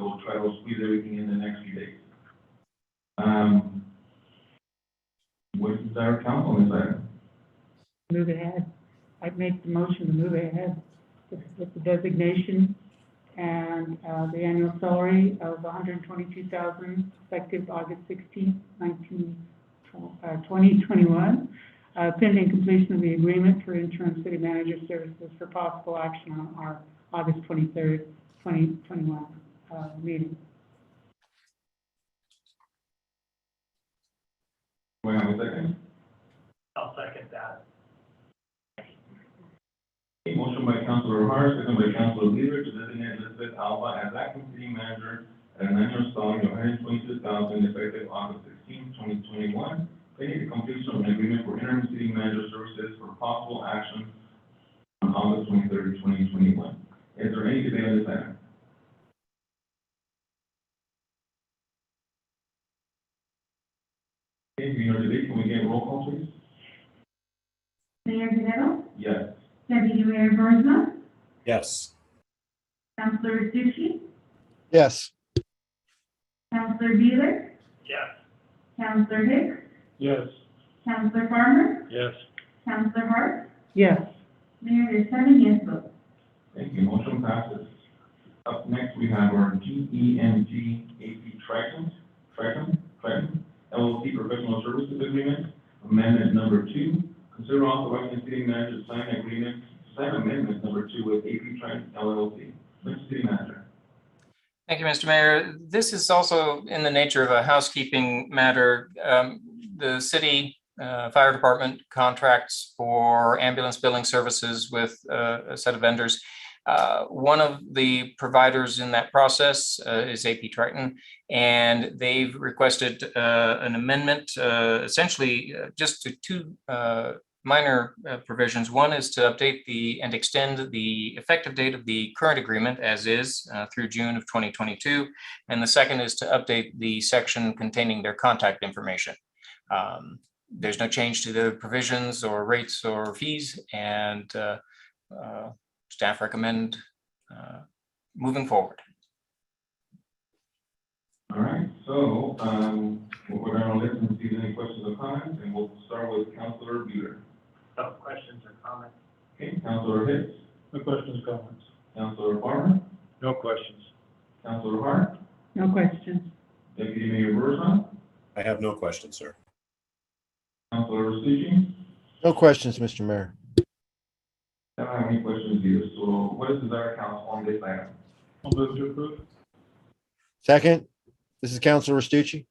we'll try to squeeze everything in the next few days. Um, what is our council on this item? move ahead. I'd make the motion to move ahead with with the designation and uh, the annual salary of 122,000 effective August 16, 2021, uh, pending completion of the agreement for interim city manager services for possible action on our August 23rd, 2021 uh, meeting. Do I have a second? I'll second that. A motion by Councilor Hart, second by Councilor Leader to designate Elizabeth Alba as acting city manager at an annual salary of hundred twenty-two thousand effective August 16, 2021, pending the completion of an agreement for interim city manager services for possible action on August 23, 2021. Is there any debate on this item? Okay, we are debate, can we get a roll call, please? Mayor Guerrero, Yes. Deputy Mayor Burisma, Yes. Councilor Tucci, yes, Councilor Beeler, Yes. Councilor Hicks, Yes. Councilor Farmer, Yes. Councilor Hart, Yes, Mayor, there's seven yes votes. Thank you, motion passes. Up next, we have our G E N G A P Triton, Triton, Triton LLC Professional Services Agreement, Amendment Number Two. Consider authorizing the city manager to sign agreement, sign amendment number two with A P Triton LLC. Mr. City Manager. Thank you, Mr. Mayor. This is also in the nature of a housekeeping matter. Um, The city uh, fire department contracts for ambulance billing services with uh, a set of vendors. Uh, One of the providers in that process uh, is AP Triton, and they've requested uh, an amendment, uh, essentially uh, just to two uh, minor uh, provisions. One is to update the, and extend the effective date of the current agreement as is uh, through June of 2022. And the second is to update the section containing their contact information. Um, There's no change to the provisions or rates or fees and uh, uh, staff recommend uh, moving forward. All right, so, um, we're gonna listen and see if any questions or comments, and we'll start with Councilor Bueller. No questions or comments? Okay, Councilor Hicks, No questions, comments? Councilor Farmer, No questions. Councilor Hart, no questions. Deputy Mayor Burisma, I have no questions, sir. Councilor Stucci, no questions, Mr. Mayor. I don't have any questions either, so what is the desire of council on this item? I'll move to approve. Second, this is Councilor Restucci.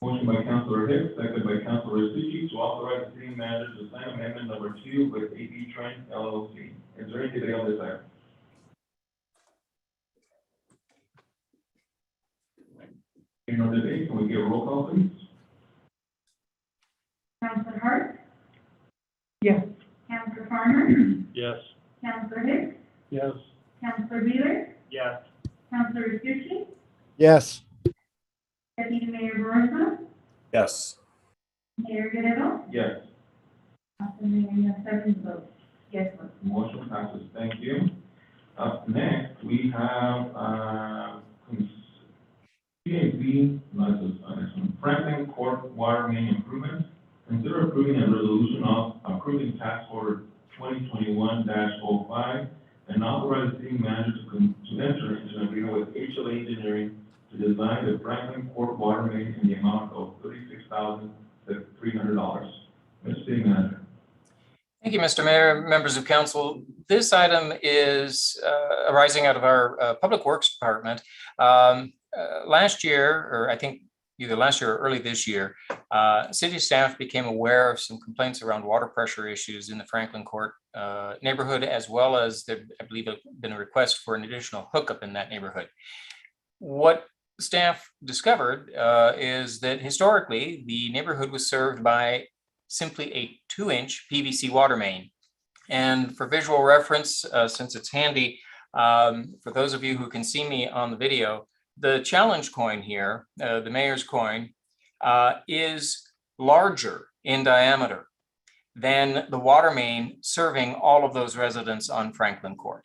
Motion by Councilor Hicks, second by Councilor Stucci, to authorize the city manager to sign amendment number two with AB Trent LLC. Is there any debate on this item? Any other debate? Can we get a roll call, please? Councilor Hart, Yes. Councilor Farmer, Yes. Councilor Hicks, Yes. Councilor Beeler, Yes. Councilor Tucci, Yes, Deputy Mayor Burisma, Yes. Mayor Guerrero, Yes. Council Mayor, you have seven votes, yes votes. Motion passes, thank you. Up next, we have, uh, PAB, not this, uh, next one, Franklin Court Water Main Improvement. Consider approving a resolution of approving task order twenty twenty-one 5 and authorize the city manager to con- to enter into an agreement with HLA Engineering to design the Franklin Court Water Main in the amount of thirty-six thousand, three hundred dollars. Mr. City Manager. Thank you, Mr. Mayor, members of council. This item is uh, arising out of our uh, Public Works Department. Um, uh, Last year, or I think either last year or early this year, uh, city staff became aware of some complaints around water pressure issues in the Franklin Court uh, neighborhood, as well as there, I believe, have been a request for an additional hookup in that neighborhood. What staff discovered uh, is that historically, the neighborhood was served by simply a two-inch PVC water main. And for visual reference, uh, since it's handy, um, for those of you who can see me on the video, the challenge coin here, uh, the mayor's coin, uh, is larger in diameter than the water main serving all of those residents on Franklin Court.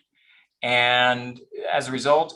And as a result,